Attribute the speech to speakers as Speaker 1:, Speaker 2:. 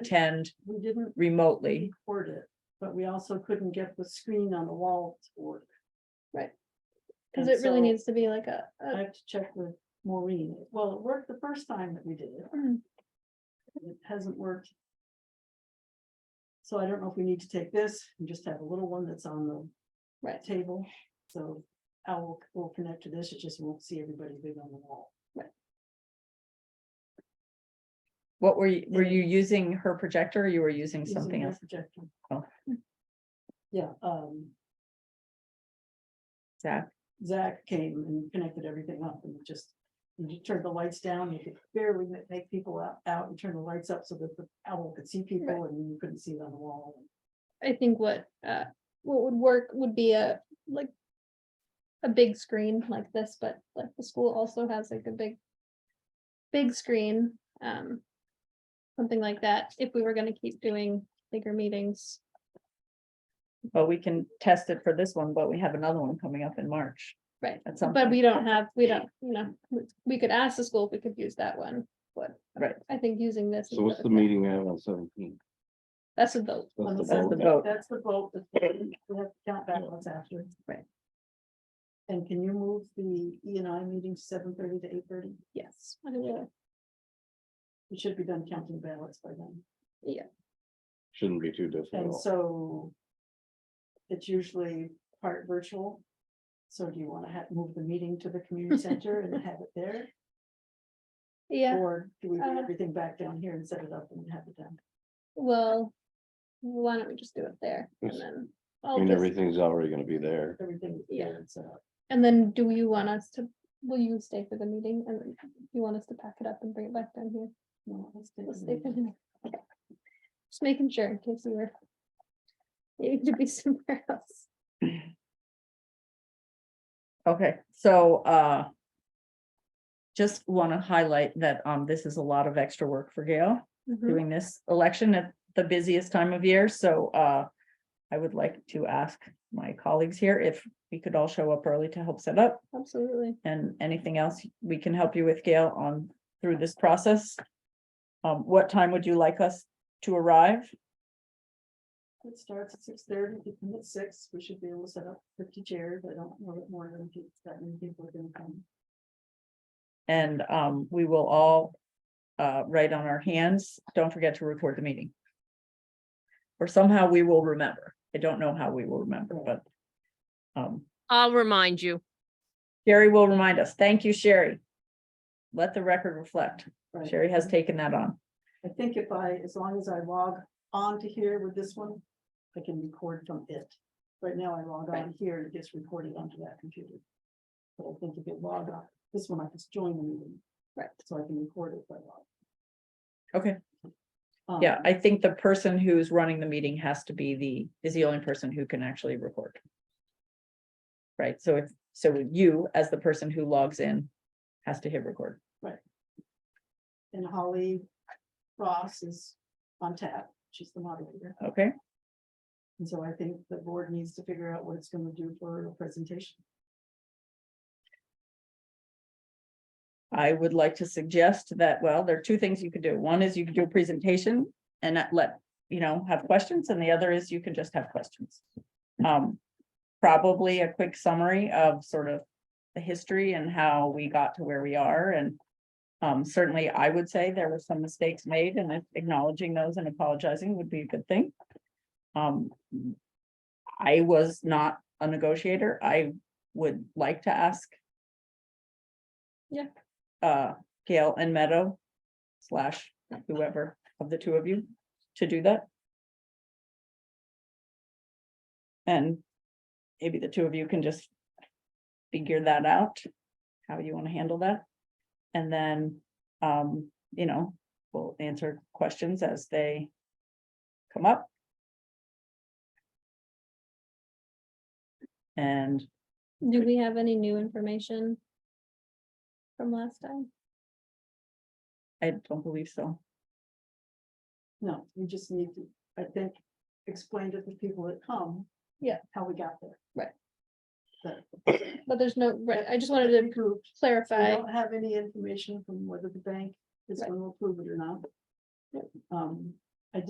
Speaker 1: attend
Speaker 2: We didn't
Speaker 1: remotely.
Speaker 2: record it, but we also couldn't get the screen on the wall to work.
Speaker 3: Right. Cause
Speaker 2: And
Speaker 3: it really
Speaker 2: so
Speaker 3: needs to be like a,
Speaker 2: I
Speaker 3: a-
Speaker 2: have to check with Maureen. Well, it worked the first time that we did it.
Speaker 3: mm,
Speaker 2: It hasn't worked. So I don't know if we need to take this and just have a little one that's on the
Speaker 3: right,
Speaker 2: table. So I will, will connect to this. It just won't see everybody big on the wall.
Speaker 1: What were you, were
Speaker 2: Yeah.
Speaker 1: you using her projector or you were using
Speaker 2: using
Speaker 1: something
Speaker 2: their
Speaker 1: else?
Speaker 2: projector.
Speaker 1: Oh.
Speaker 2: Yeah, um,
Speaker 1: Zach?
Speaker 2: Zach came and connected everything up and just, and he turned the lights down, you could barely ma- make people out, out and turn the lights up so that the owl could see people and you couldn't see it on the wall.
Speaker 3: I think what, uh, what would work would be a, like. A big screen like this, but like the school also has like a big. Big screen, um. Something like that, if we were gonna keep doing bigger meetings,
Speaker 1: Well, we can test it for this one, but we have another one coming up in March
Speaker 3: right,
Speaker 1: at some
Speaker 3: but
Speaker 1: point.
Speaker 3: we don't have, we don't, you know, we- we could ask the school if we could use that one, but.
Speaker 1: Right.
Speaker 3: I think using this.
Speaker 4: So
Speaker 3: instead
Speaker 4: what's
Speaker 3: of
Speaker 4: the
Speaker 3: that-
Speaker 4: meeting we have on seventeen?
Speaker 3: That's a vote,
Speaker 2: On the
Speaker 1: That's the
Speaker 2: seventh.
Speaker 1: vote.
Speaker 2: That's the vote, that we have to count back what's after.
Speaker 1: Right.
Speaker 2: And can you move the E and I meeting seven thirty to eight thirty?
Speaker 3: yes, I will,
Speaker 2: It should be done counting ballots by then.
Speaker 4: Shouldn't be too
Speaker 2: And
Speaker 4: difficult.
Speaker 2: so it's usually part virtual. So do you want to have, move the meeting to the community center and have it there?
Speaker 3: yeah,
Speaker 2: Or do we bring
Speaker 3: Uh,
Speaker 2: everything back down here and set it up and have it done?
Speaker 3: well. Why don't we just do it there and
Speaker 4: Yes.
Speaker 3: then?
Speaker 4: I
Speaker 3: I'll
Speaker 4: mean,
Speaker 3: just-
Speaker 4: everything's already gonna be there.
Speaker 2: Everything.
Speaker 3: Yeah.
Speaker 2: there and set up.
Speaker 3: And then do you want us to, will you stay for the meeting and then you want us to pack it up and bring it back down here?
Speaker 2: No, let's do
Speaker 3: We'll
Speaker 2: it.
Speaker 3: stay for the meeting. Okay. Just making sure in case you were. needing to be somewhere else.
Speaker 1: Okay, so, uh, just want to highlight that, um, this is a lot of extra work for Gail.
Speaker 3: Mhm.
Speaker 1: doing this election at the busiest time of year, so uh. I would like to ask my colleagues here if we could all show up early to help set up
Speaker 3: Absolutely.
Speaker 1: and anything else we can help you with, Gail, on through this process. Um, what time would you like us to arrive?
Speaker 2: It starts at six thirty, we come at six, we should be able to set up fifty chairs, I don't know that more than peop- that many people are gonna come.
Speaker 1: And um, we will all uh, write on our hands, don't forget to record the meeting. Or somehow we will remember. I don't know how we will remember, but um,
Speaker 5: I'll remind you.
Speaker 1: Sherry will remind us. Thank you, Sherry. Let the record reflect.
Speaker 2: Right.
Speaker 1: Sherry has taken that on.
Speaker 2: I think if I, as long as I log on to here with this one, I can record from it. Right now I log on here, and it gets recorded onto that computer. But I think if it log on, this one I just join the meeting.
Speaker 3: Right.
Speaker 2: So I can record it by log.
Speaker 1: Okay.
Speaker 2: Um,
Speaker 1: Yeah, I think the person who's running the meeting has to be the, is the only person who can actually record. Right, so if, so you, as the person who logs in, has to hit record.
Speaker 2: And Holly Ross is on tap, she's the moderator.
Speaker 1: Okay,
Speaker 2: And so I think the board needs to figure out what it's gonna do for a presentation.
Speaker 1: I would like to suggest that, well, there are two things you could do. One is you could do a presentation and not let, you know, have questions, and the other is you can just have questions. Um, probably a quick summary of sort of the history and how we got to where we are and um, certainly I would say there were some mistakes made and acknowledging those and apologizing would be a good thing. Um, I was not a negotiator. I would like to ask
Speaker 3: Yeah.
Speaker 1: uh, Gail and Meadow slash whoever of the two of you to do that. And maybe the two of you can just figure that out, how you want to handle that. And then, um, you know, we'll answer questions as they come up. And
Speaker 3: Do we have any new information? From last time?
Speaker 1: I don't believe so.
Speaker 2: No, you just need to, I think, explain to the people that come.
Speaker 3: Yeah.
Speaker 2: How we got there.
Speaker 3: Right.
Speaker 2: But we
Speaker 3: But there's no, right, I just wanted to
Speaker 2: prove- we
Speaker 3: clarify,
Speaker 2: don't have any information from whether the bank is
Speaker 3: Right.
Speaker 2: gonna approve it or not. Um,